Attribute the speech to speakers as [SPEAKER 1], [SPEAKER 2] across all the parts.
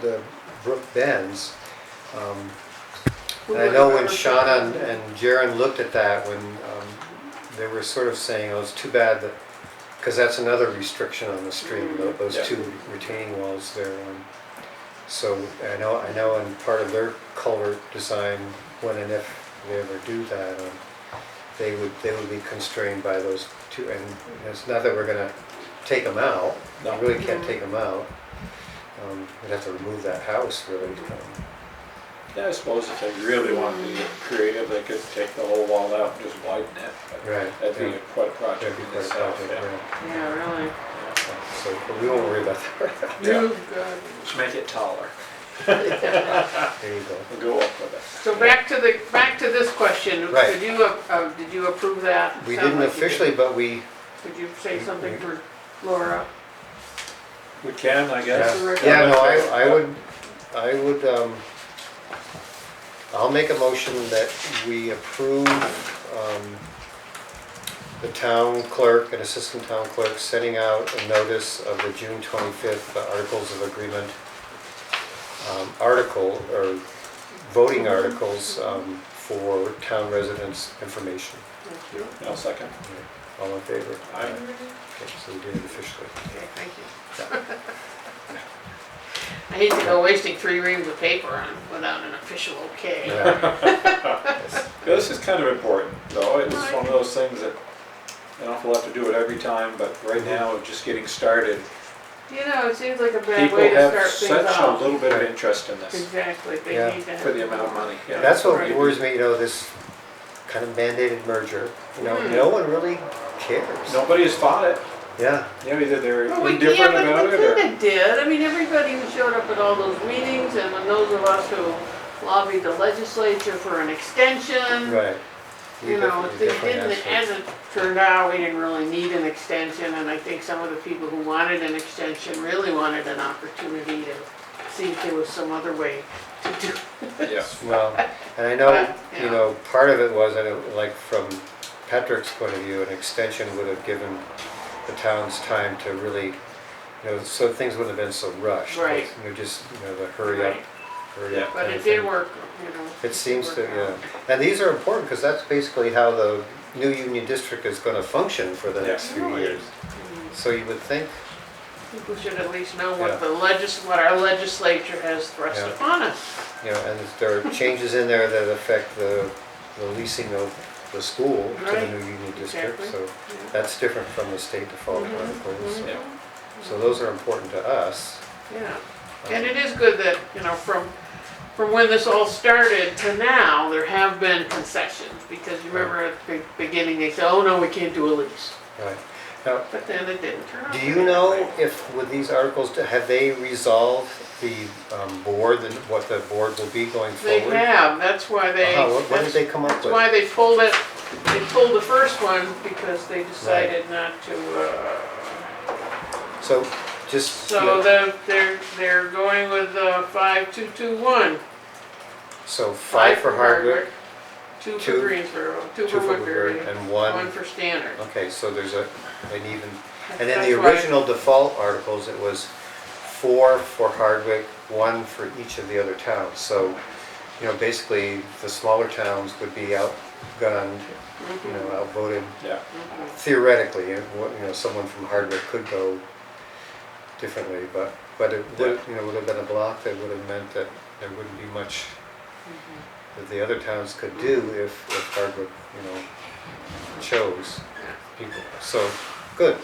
[SPEAKER 1] the brook bends. Um,
[SPEAKER 2] We
[SPEAKER 1] And I
[SPEAKER 2] were-
[SPEAKER 1] know when Shauna and- and Jaren looked at that, when um, they were sort of saying, oh, it's too bad that, because that's another restriction on the stream, tho- those
[SPEAKER 3] Mm-hmm. Yeah.
[SPEAKER 1] two retaining walls there. um, So I know, I know in part of their culvert design, when and if they ever do that, um, they would, they would be constrained by those two. And it's not that we're gonna take them out, you
[SPEAKER 3] No.
[SPEAKER 1] really can't take them out. Um, We'd have to remove that house really. um,
[SPEAKER 3] Yeah, I suppose if they really wanted to get creative, they could take the whole wall out and just widen it. but
[SPEAKER 1] Right.
[SPEAKER 3] That'd
[SPEAKER 1] yeah.
[SPEAKER 3] be quite a
[SPEAKER 1] That'd
[SPEAKER 3] project
[SPEAKER 1] be
[SPEAKER 3] in
[SPEAKER 1] quite a
[SPEAKER 3] itself,
[SPEAKER 1] project,
[SPEAKER 3] yeah.
[SPEAKER 1] right.
[SPEAKER 2] Yeah, really.
[SPEAKER 1] So, but we won't worry about that.
[SPEAKER 3] Yeah.
[SPEAKER 2] You got-
[SPEAKER 3] Just make it taller.
[SPEAKER 1] There you go.
[SPEAKER 3] We'll go up with it.
[SPEAKER 2] So back to the, back to this question.
[SPEAKER 1] Right.
[SPEAKER 2] Did you, uh, uh, did you approve that?
[SPEAKER 1] We
[SPEAKER 2] Sound
[SPEAKER 1] didn't
[SPEAKER 2] like you did.
[SPEAKER 1] officially, but we,
[SPEAKER 2] Could you say something for Laura?
[SPEAKER 3] We can, I guess.
[SPEAKER 1] yeah,
[SPEAKER 2] Yes.
[SPEAKER 1] Yeah, no, I, I would, I would, um, I'll make a motion that we approve, um, the town clerk and assistant town clerk sending out a notice of the June twenty-fifth uh, Articles of Agreement, um, article, or voting articles, um, for town residents' information.
[SPEAKER 3] No, second.
[SPEAKER 1] All in favor?
[SPEAKER 3] Aye.
[SPEAKER 1] Okay, so we did it officially.
[SPEAKER 2] Okay, thank you. I hate to go wasting three reams of paper on, without an official okay.
[SPEAKER 1] Yeah.
[SPEAKER 3] This is kind of important, though. It's one of those things that an awful lot to do it every time, but right
[SPEAKER 1] Mm-hmm.
[SPEAKER 3] now, just getting started.
[SPEAKER 2] You know, it seems like a bad
[SPEAKER 3] People
[SPEAKER 2] way to
[SPEAKER 3] have
[SPEAKER 2] start things
[SPEAKER 3] such a
[SPEAKER 2] off.
[SPEAKER 3] little bit of interest in this
[SPEAKER 2] Exactly,
[SPEAKER 1] Yeah,
[SPEAKER 2] they need that.
[SPEAKER 3] for the amount of money. yeah.
[SPEAKER 1] That's what worries me, you know, this kind of mandated merger, you know,
[SPEAKER 2] Hmm.
[SPEAKER 1] no one really cares.
[SPEAKER 3] Nobody has fought it.
[SPEAKER 1] Yeah,
[SPEAKER 3] You know, either they're
[SPEAKER 2] Well, we
[SPEAKER 3] indifferent
[SPEAKER 2] can't,
[SPEAKER 3] about
[SPEAKER 2] but we
[SPEAKER 3] it or.
[SPEAKER 2] kinda did, I mean, everybody who showed up at all those meetings, and when those of us who lobbied the legislature for an extension,
[SPEAKER 1] right. We
[SPEAKER 2] you know,
[SPEAKER 1] definitely-
[SPEAKER 2] they
[SPEAKER 1] definitely
[SPEAKER 2] didn't,
[SPEAKER 1] asked for it.
[SPEAKER 2] as it turned out, we didn't really need an extension, and I think some of the people who wanted an extension really wanted an opportunity to see if there was some other way to do.
[SPEAKER 3] Yeah.
[SPEAKER 1] Well, and I know,
[SPEAKER 2] But,
[SPEAKER 1] you
[SPEAKER 2] yeah.
[SPEAKER 1] know, part of it was, that it- like, from Patrick's point of view, an extension would have given the towns time to really, you know, so things wouldn't have been so rushed.
[SPEAKER 2] Right.
[SPEAKER 1] You know, just, you know, the hurry up,
[SPEAKER 2] Right.
[SPEAKER 1] hurry
[SPEAKER 3] Yeah.
[SPEAKER 1] up.
[SPEAKER 2] But
[SPEAKER 1] kind
[SPEAKER 2] it
[SPEAKER 1] of thing.
[SPEAKER 2] did work, you know.
[SPEAKER 1] It seems to,
[SPEAKER 2] work out.
[SPEAKER 1] yeah. And these are important because that's basically how the new union district is going to function for the
[SPEAKER 3] Yeah.
[SPEAKER 1] next few
[SPEAKER 2] Really?
[SPEAKER 1] years. So you would think,
[SPEAKER 2] People should at least know
[SPEAKER 1] Yeah.
[SPEAKER 2] what the legis, what our legislature has thrust
[SPEAKER 1] Yeah.
[SPEAKER 2] upon us.
[SPEAKER 1] you know, and there are changes in there that affect the, the leasing of the school to the
[SPEAKER 2] Right.
[SPEAKER 1] new union district.
[SPEAKER 2] Exactly.
[SPEAKER 1] So that's different from the state default
[SPEAKER 2] Mhm.
[SPEAKER 1] articles. so-
[SPEAKER 3] Yeah.
[SPEAKER 1] So those are important to us.
[SPEAKER 2] Mm-hmm. Yeah, and it is good that, you know, from, from when this all started to now, there have been concessions, because you remember at the beginning, they said, oh, no, we can't do a lease,
[SPEAKER 1] Right. Now,
[SPEAKER 2] but then it didn't turn out.
[SPEAKER 1] do
[SPEAKER 2] to
[SPEAKER 1] you
[SPEAKER 2] be that
[SPEAKER 1] know
[SPEAKER 2] way.
[SPEAKER 1] if with these articles, have they resolved the um, board and what the board will be going
[SPEAKER 2] They
[SPEAKER 1] forward?
[SPEAKER 2] have, that's why they,
[SPEAKER 1] Uh-huh, What what did
[SPEAKER 2] that's
[SPEAKER 1] they come up
[SPEAKER 2] that's
[SPEAKER 1] with?
[SPEAKER 2] why they pulled it, they pulled the first one, because they decided not to, uh,
[SPEAKER 1] So just.
[SPEAKER 2] so they're, they're, they're going with, uh, five, two, two, one.
[SPEAKER 1] So five for Hardwick,
[SPEAKER 2] Two for
[SPEAKER 1] two-
[SPEAKER 2] Greensboro, two
[SPEAKER 1] two
[SPEAKER 2] for
[SPEAKER 1] for Woodbury,
[SPEAKER 2] Woodbury,
[SPEAKER 1] and
[SPEAKER 2] one
[SPEAKER 1] one,
[SPEAKER 2] for Standard.
[SPEAKER 1] okay, so there's a, an even, and then
[SPEAKER 2] That's
[SPEAKER 1] the
[SPEAKER 2] why-
[SPEAKER 1] original default articles, it was four for Hardwick, one for each of the other towns. So, you know, basically, the smaller towns would be outgunned, you know, outvoted
[SPEAKER 3] Yeah.
[SPEAKER 1] theoretically. and what- You know, someone from Hardwick could go differently, but, but it would, you know, would have been a block that would have meant that there wouldn't be much
[SPEAKER 2] Mm-hmm.
[SPEAKER 1] that the other towns could do if, if Hardwick, you know, chose people. So, good.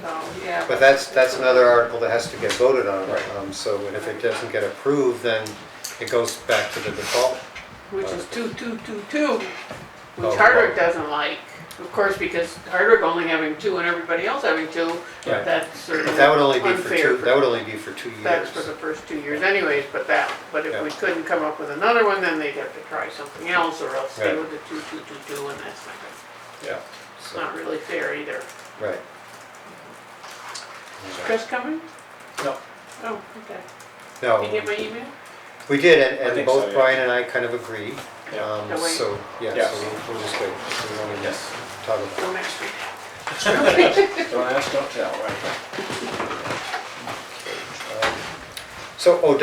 [SPEAKER 2] So, yeah.
[SPEAKER 1] But that's, that's another article that has to get voted on.
[SPEAKER 3] Right.
[SPEAKER 1] Um, So, and if it doesn't get approved, then it goes back to the default.
[SPEAKER 2] Which is two, two, two, two,
[SPEAKER 1] Oh,
[SPEAKER 2] which Hardwick
[SPEAKER 1] wow.
[SPEAKER 2] doesn't like. Of course, because Hardwick only having two and everybody else having two,
[SPEAKER 1] Right.
[SPEAKER 2] that's sort of
[SPEAKER 1] But that would only be for
[SPEAKER 2] unfair
[SPEAKER 1] two, that would only be for two years.
[SPEAKER 2] That's for the first two years anyways, but that, but if we
[SPEAKER 1] Yeah.
[SPEAKER 2] couldn't come up with another one, then they'd have to try something else, or else stay
[SPEAKER 1] Right.
[SPEAKER 2] with the two, two, two, two, and that's not, good.
[SPEAKER 3] Yeah.
[SPEAKER 2] it's
[SPEAKER 1] So,
[SPEAKER 2] not really fair either.
[SPEAKER 1] Right.
[SPEAKER 2] Chris coming?
[SPEAKER 3] No.
[SPEAKER 2] Oh, okay. Did you
[SPEAKER 1] No,
[SPEAKER 2] get my email?
[SPEAKER 1] we did, and,
[SPEAKER 3] I
[SPEAKER 1] and
[SPEAKER 3] think so,
[SPEAKER 1] both
[SPEAKER 3] yeah.
[SPEAKER 1] Brian and I kind of agreed.
[SPEAKER 3] Yeah.
[SPEAKER 1] Um,
[SPEAKER 2] No, wait.
[SPEAKER 1] So, yeah,
[SPEAKER 3] Yeah.
[SPEAKER 1] so we'll- we'll just wait. We don't even
[SPEAKER 3] Yes.
[SPEAKER 1] talk about it.
[SPEAKER 2] Go next week.
[SPEAKER 3] Don't ask, don't tell, right?
[SPEAKER 1] Um, So, oh,